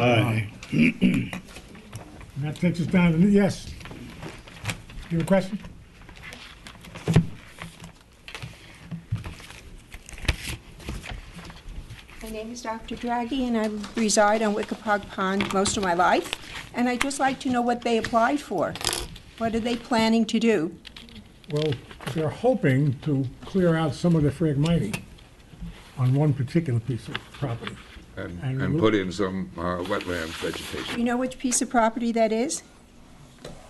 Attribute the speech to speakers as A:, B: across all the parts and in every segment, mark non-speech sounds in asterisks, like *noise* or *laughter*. A: Aye.
B: And that takes us down to, yes. You have a question?
C: My name is Dr. Draghi, and I reside on Wickapog Pond most of my life, and I'd just like to know what they applied for. What are they planning to do?
B: Well, they're hoping to clear out some of the fragmity on one particular piece of property.
D: and,
B: And
D: and
B: look-
D: put in some uh, wetland
C: Do
D: vegetation.
C: you know which piece of property that is?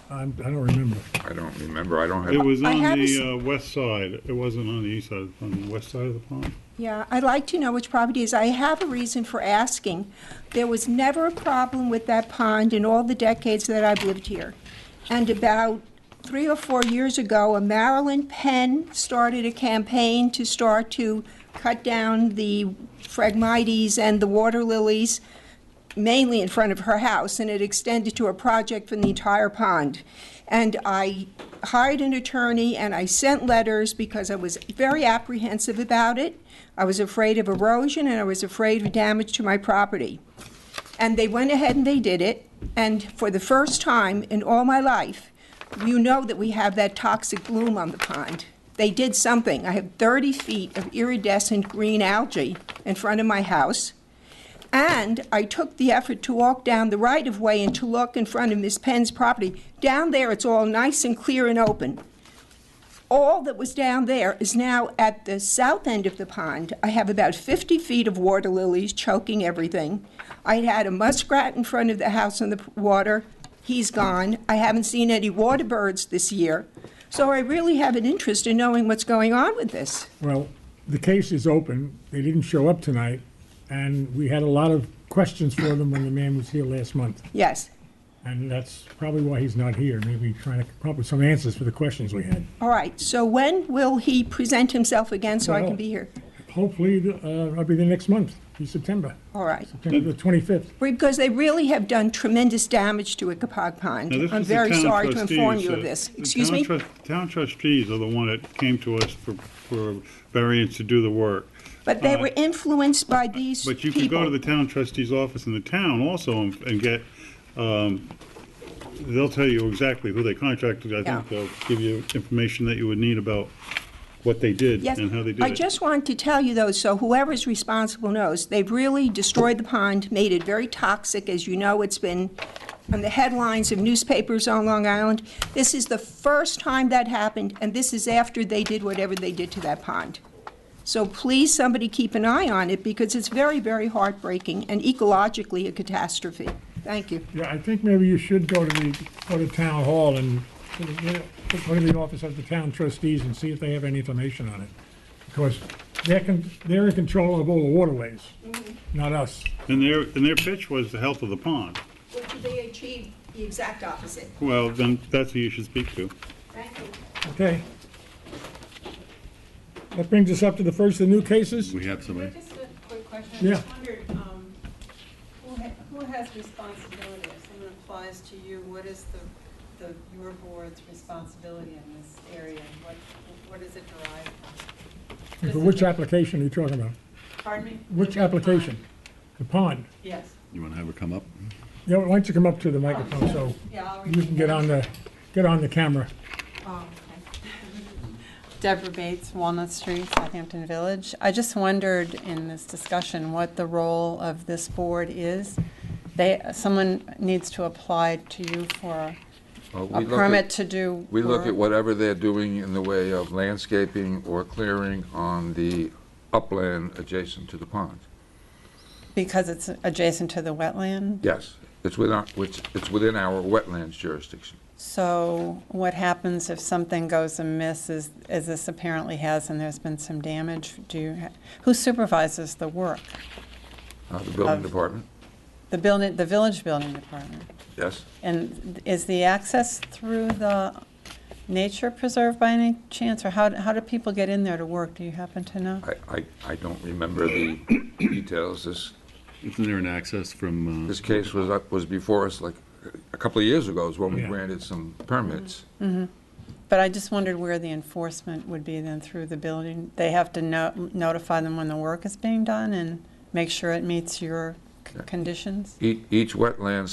B: I'm- I don't remember.
D: I don't remember, I don't
A: It
D: have,
A: was
C: I
A: on
C: have a s-
A: the uh, west side, it wasn't on the east side, it was on the west side of the pond.
C: Yeah, I'd like to know which property it is. I have a reason for asking. There was never a problem with that pond in all the decades that I've lived here. And about three or four years ago, a Maryland Penn started a campaign to start to cut down the phragmites and the water lilies, mainly in front of her house, and it extended to a project from the entire pond. And I hired an attorney and I sent letters because I was very apprehensive about it. I was afraid of erosion and I was afraid of damage to my property. And they went ahead and they did it. And for the first time in all my life, you know that we have that toxic bloom on the pond. They did something. I have 30 feet of iridescent green algae in front of my house. And I took the effort to walk down the right of way and to look in front of Miss Penn's property. Down there, it's all nice and clear and open. All that was down there is now at the south end of the pond. I have about 50 feet of water lilies choking everything. I had a muskrat in front of the house in the p- water. He's gone. I haven't seen any water birds this year. So I really have an interest in knowing what's going on with this.
B: Well, the case is open. They didn't show up tonight, and we had a lot of questions for them when the man was here last month.
C: Yes.
B: And that's probably why he's not here, maybe trying to come up with some answers for the questions we had.
C: All right. So when will he present himself again so I
B: Well-
C: can be here?
B: Hopefully, uh, I'll be there next month, in September,
C: All right.
B: September the 25th.
C: Because they really have done tremendous damage to Wickapog
A: Now,
C: Pond.
A: this
C: I'm
A: was the
C: very
A: town
C: sorry to inform
A: trustees,
C: you of
A: uh,
C: this.
A: the
C: Excuse
A: town
C: me?
A: trus- Town trustees are the one that came to us for, for variance to do the work.
C: But they
A: uh,
C: were influenced by these people.
A: But you can go to the town trustee's office in the town also and and get, um, they'll tell you exactly who they contracted. I think
C: Yeah.
A: they'll give you information that you would need about what they did
C: Yes,
A: and how they did it.
C: I just want to tell you though, so whoever's responsible knows, they've really destroyed the pond, made it very toxic. As you know, it's been on the headlines of newspapers on Long Island. This is the first time that happened, and this is after they did whatever they did to that pond. So please, somebody keep an eye on it, because it's very, very heartbreaking and ecologically a catastrophe. Thank you.
B: Yeah, I think maybe you should go to the, go to town hall and, go to the office of the town trustees and see if they have any information on it. Because they're, con- they're in control of all the waterways, not us.
A: And their, and their pitch was the health of the pond.
C: Well, they achieved the exact opposite.
A: Well, then that's who you should speak to.
C: Thank you.
B: Okay? That brings us up to the first of the new cases.
E: We have somebody.
F: Just a quick question. I
B: Yeah.
F: just wondered, um, who ha- who has responsibility? If someone applies to you, what is the, the, your board's responsibility in this area? What, what is it derived from?
B: For
F: Does
B: which
F: it-
B: application are you talking about?
F: Pardon me?
B: Which application? The pond.
F: Yes.
E: You want to have her come up?
B: Yeah, why don't you come up to the microphone so
F: Yeah, I'll read
B: you can get on the, get on the camera.
F: Oh, okay. *laughs* Deborah Bates, Walnut Street, Southampton Village. I just wondered in this discussion what the role of this board is. They, someone needs to apply to you for
D: well,
F: a
D: we look
F: permit
D: at,
F: to do.
D: we look at
F: work.
D: whatever they're doing in the way of landscaping or clearing on the upland adjacent to the pond.
F: Because it's adjacent to the wetland.
D: Yes, it's within, our- which, it's within our wetlands jurisdiction.
F: So what happens if something goes amiss, as, as this apparently has, and there's been some damage? Do you, ha- who supervises the work?
D: Uh, The building
F: Of-
D: department,
F: The building, the village building department?
D: yes,
F: And is the access through the nature preserve by any chance, or how, how do people get in there to work? Do you happen to know?
D: I, I, I don't remember the details, this,
E: Isn't there an access from, uh,
D: this case was, up was before us like a couple of years ago is when we
B: Yeah.
D: granted some permits.
F: But I just wondered where the enforcement would be then through the building. They have to no- notify them when the work is being done and make sure it meets your conditions?
D: E- Each wetlands